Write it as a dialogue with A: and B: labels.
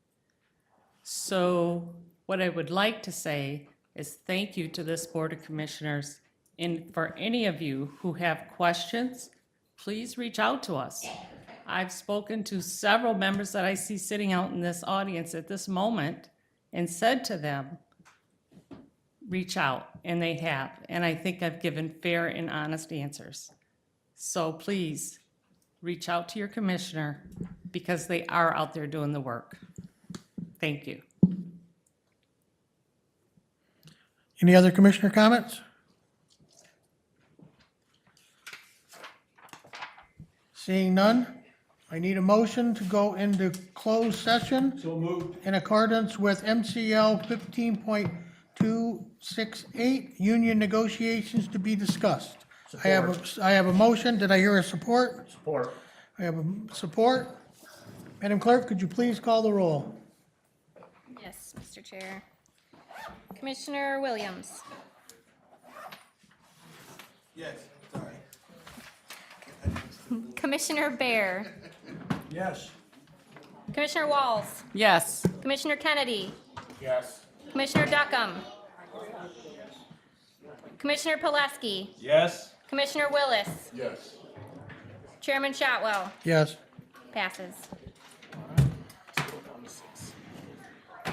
A: So what I would like to say is thank you to this Board of Commissioners. And for any of you who have questions, please reach out to us. I've spoken to several members that I see sitting out in this audience at this moment and said to them, reach out, and they have. And I think I've given fair and honest answers. So please, reach out to your commissioner because they are out there doing the work. Thank you.
B: Any other commissioner comments? Seeing none, I need a motion to go into closed session. So moved. In accordance with MCL 15.268, union negotiations to be discussed. I have, a I have a motion. Did I hear a support?
C: Support.
B: I have a support. Madam Clerk, could you please call the roll?
D: Yes, Mr. Chair. Commissioner Williams,
E: Yes, sorry.
D: Commissioner Bear,
C: Yes.
D: Commissioner Walls,
A: Yes.
D: Commissioner Kennedy,
C: Yes.
D: Commissioner Duckham, Commissioner Pileski,
C: Yes.
D: Commissioner Willis,
C: Yes.
D: Chairman Shotwell,
B: Yes.
D: passes.